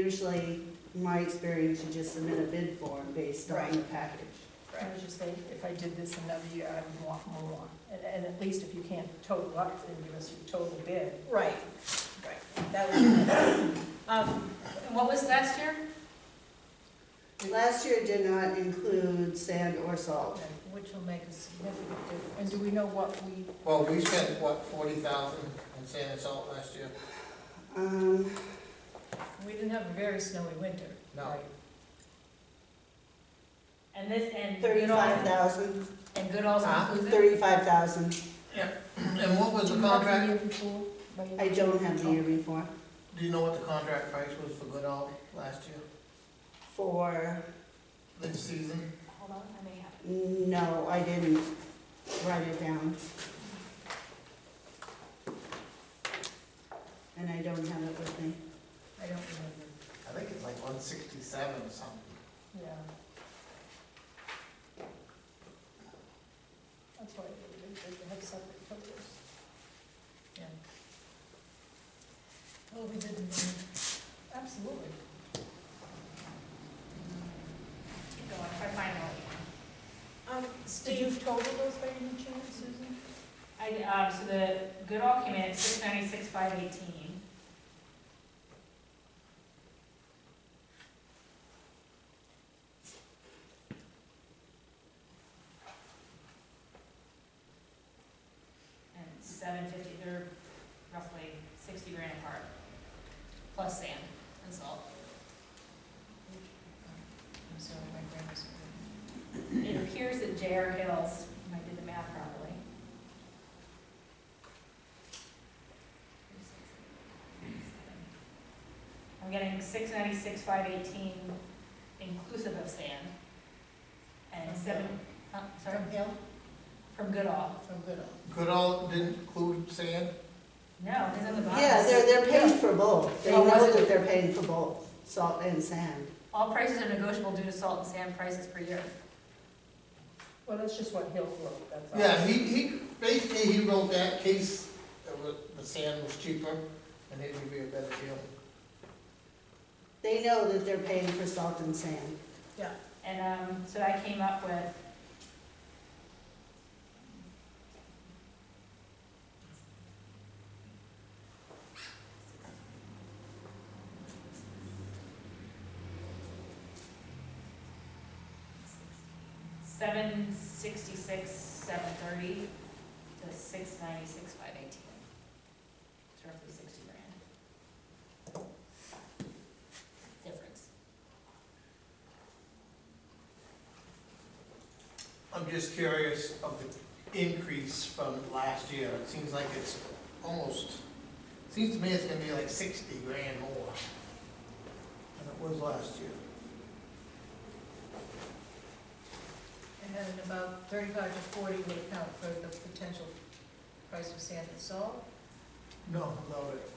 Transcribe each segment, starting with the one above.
usually, my experience, you just submit a bid form based on the package. I was just saying, if I did this another year, I would want more. And, and at least if you can't total up, then give us your total bid. Right, right, that would be better. Um, and what was last year? Last year did not include sand or salt. Which will make a significant difference. And do we know what we, Well, we spent, what, forty thousand on sand and salt last year? Um, we didn't have a very snowy winter. No. right? And this, and Good thirty-five Alls, thousand, and Good Alls Huh? included? thirty-five thousand. And what Do was the you have contract, year before, by year I don't have the before? year before. do you know what the contract price was for Goodall last year, For, this season? Hold on, I may have. no, I didn't write it down. And I don't have it with me. Oh, I don't remember, I think it's like one sixty-seven or something. yeah. That's why they, they- they have separate totals. Yeah. Oh, we didn't, absolutely. Keep going, if I find out. Um, Did you total those by any chance, Susan? I, um, so the Good All came in at six ninety-six, five eighteen. And seven fifty, they're roughly sixty grand apart, plus sand and salt. I'm sorry, my grandma's. It appears that J.R. Hills, if I did the math properly. I'm getting six ninety-six, five eighteen inclusive of sand. And From seven, uh, sorry, From Hill? from Goodall. From Goodall. Goodall didn't include sand? No, it's on the bottom. Yeah, they're, they're paying for both. They Oh, know was it? that they're paying for both, salt and sand. All prices are negotiable due to salt and sand prices per year. Well, that's just what Hill wrote, that's all. Yeah, he, he, basically, he wrote that case, that wa- the sand was cheaper, and it would be a better deal. They know that they're paying for salt and sand. And, um, so I came up with. Seven sixty-six, seven thirty to six ninety-six, five eighteen. It's roughly sixty grand. Difference. I'm just curious of the increase from last year, it seems like it's almost, seems to me it's gonna be like sixty grand more than it was last year. And then about thirty-five to forty would account for the potential price of sand and salt. No, without it.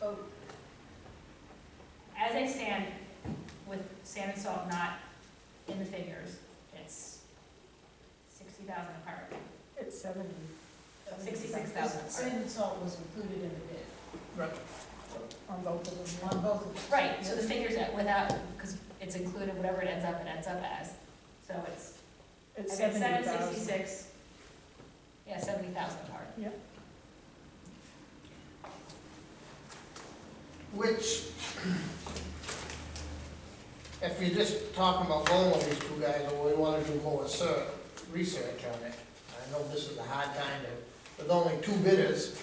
Oh, As I stand with sand and salt not in the figures, it's sixty thousand apart. it's seventy. 66,000. Sand and salt was included in the bid Right. on both of them, on both of them. Right, so the figures that without, because it's included, whatever it ends up, it ends up as. So it's, It's I think seventy seven thousand. sixty-six. Yeah, seventy thousand apart. Which, if you're just talking about going with these two guys, or we wanna do more ser, research on it, I know this is a hard time to, with only two bidders,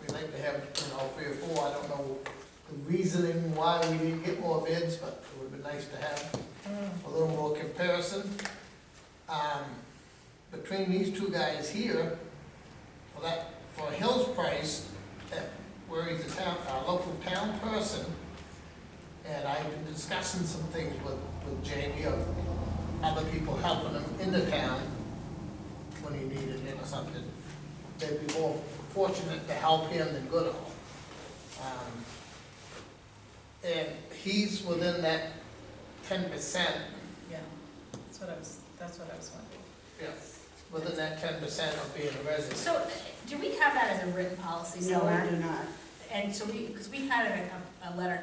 we like to have, you know, three or four, I don't know the reasoning why we didn't get more bids, but it would've been nice to have Mm, a little more comparison. Um, between these two guys here, for that, for Hill's price, that, where he's a town, a local town person, and I've been discussing some things with, with Jamie of other people helping him in the town when he needed it or something. They'd be more fortunate to help him than Goodall. Um, And he's within that ten percent Yeah, that's what I was, that's what I was wondering. Yeah, within that ten percent of being a resident. So do we have that as a written policy No, we somewhere? do not. And so we, because we had a, a letter